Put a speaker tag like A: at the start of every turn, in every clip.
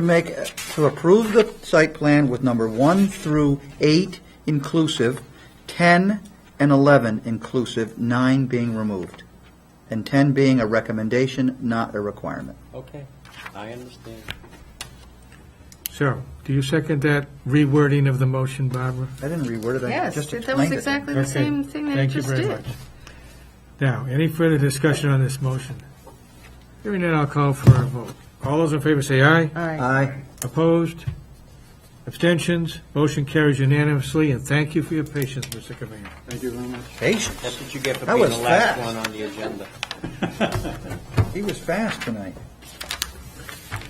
A: To make, to approve the site plan with number one through eight inclusive, 10 and 11 inclusive, nine being removed, and 10 being a recommendation, not a requirement.
B: Okay, I understand.
C: Cheryl, do you second that rewording of the motion, Barbara?
A: I didn't reword it, I
D: Yes,
A: just
D: that was
A: explained it.
D: exactly the
C: Okay.
D: same thing that I
C: Thank you
D: just
C: very
D: did.
C: much. Now, any further discussion on this motion? Hearing none, I'll call for a vote. All those in favor say aye.
D: Aye.
A: Aye.
C: Opposed? Abstentions? Motion carries unanimously, and thank you for your patience, Mr. Cavino.
E: Thank you very much.
A: Patience,
B: That's what you get for
A: That
B: being the
A: was
B: last
A: fast.
B: one on the agenda.
A: he was fast tonight.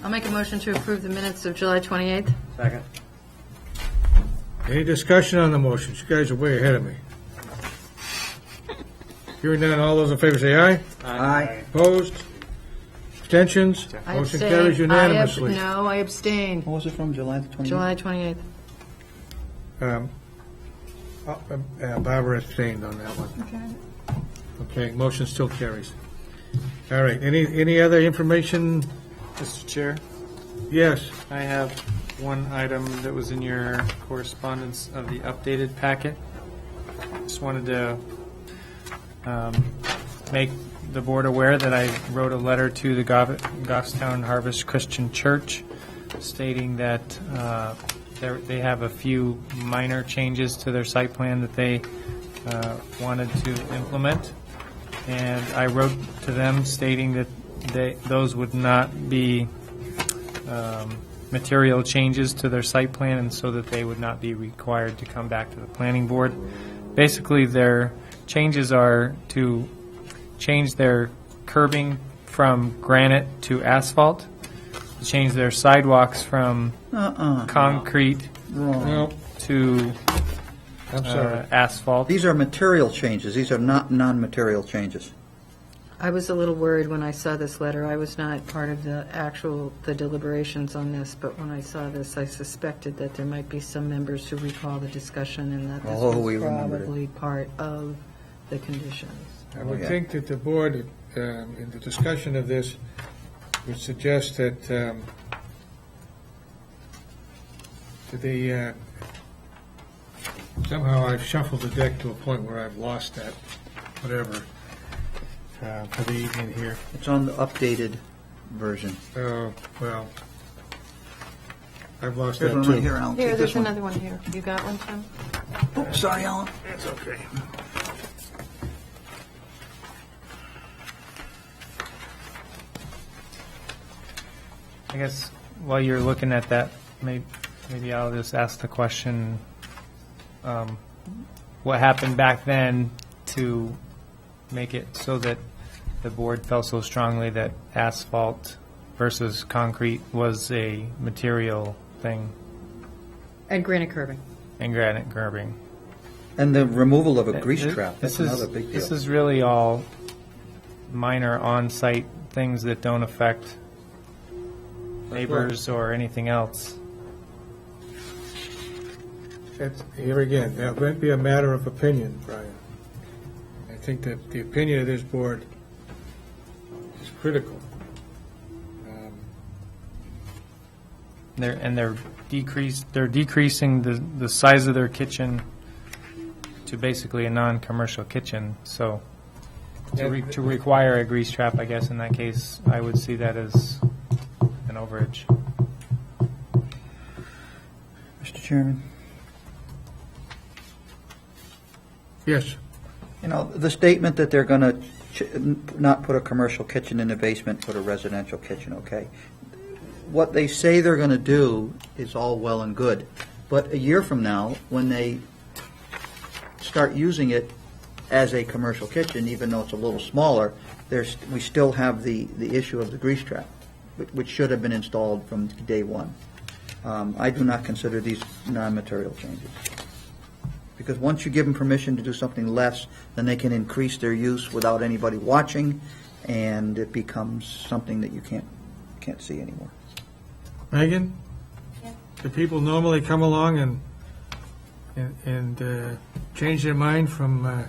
D: I'll make a motion to approve the minutes of July 28th.
B: Second.
C: Any discussion on the motion? You guys are way ahead of me. Hearing none, all those in favor say aye.
A: Aye.
C: Opposed? Abstentions?
D: I
C: Motion
D: abstain.
C: carries
D: I ab-
C: unanimously.
D: No, I abstain.
A: What was it from, July the 28th?
D: July 28th.
C: Um, uh, uh, Barbara abstained on that one. Okay, motion still carries. All right, any, any other information?
E: Mr. Chair,
C: Yes,
E: I have one item that was in your correspondence of the updated packet. Just wanted to um, make the board aware that I wrote a letter to the Gov- Goffstown Harvest Christian Church stating that uh, there- they have a few minor changes to their site plan that they uh, wanted to implement. And I wrote to them stating that they, those would not be um, material changes to their site plan, and so that they would not be required to come back to the planning board. Basically, their changes are to change their curbing from granite to asphalt, change their sidewalks from
A: Uh-uh,
E: concrete
A: wrong.
C: no,
E: to
C: I'm sorry.
E: uh, asphalt.
A: These are material changes, these are not non-material changes.
D: I was a little worried when I saw this letter. I was not part of the actual, the deliberations on this, but when I saw this, I suspected that there might be some members who recall the discussion and that
A: Oh,
D: this
A: we
D: was
A: remembered it.
D: probably part of the conditions.
C: I would
A: Yeah.
C: think that the board, um, in the discussion of this, would suggest that um, that they, uh, somehow I've shuffled the deck to a point where I've lost that, whatever, uh, for the evening here.
A: It's on the updated version.
C: Oh, well, I've lost that
A: There's one right
C: too.
A: here, Alan,
D: Here,
A: take this
D: there's
A: one.
D: another one here. You got one, Tim?
A: Oops, Sorry, Alan.
C: That's okay.
E: I guess while you're looking at that, may- maybe I'll just ask the question, um, what happened back then to make it so that the board felt so strongly that asphalt versus concrete was a material thing
D: And granite curbing.
E: and granite curbing?
A: And the removal of a grease
E: Th-
A: trap, that's
E: this is-
A: another big
E: This
A: deal.
E: is really all minor on-site things that don't affect neighbors or anything else.
C: That's- Here again, that might be a matter of opinion, Brian. I think that the opinion of this board is critical. Um,
E: They're, and they're decreased, they're decreasing the, the size of their kitchen to basically a non-commercial kitchen, so to re, to require a grease trap, I guess, in that case, I would see that as an overage.
A: Mr. Chairman?
C: Yes,
A: You know, the statement that they're going to not put a commercial kitchen in the basement, put a residential kitchen, okay? What they say they're going to do is all well and good, but a year from now, when they start using it as a commercial kitchen, even though it's a little smaller, there's, we still have the, the issue of the grease trap, which- which should have been installed from day one. Um, I do not consider these non-material changes. Because once you give them permission to do something less, then they can increase their use without anybody watching, and it becomes something that you can't, can't see anymore.
C: Megan? Do people normally come along and, and- and uh, change their mind from uh,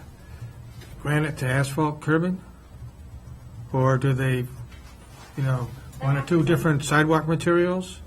C: granite to asphalt curbing? Or do they, you know, one or two different sidewalk materials?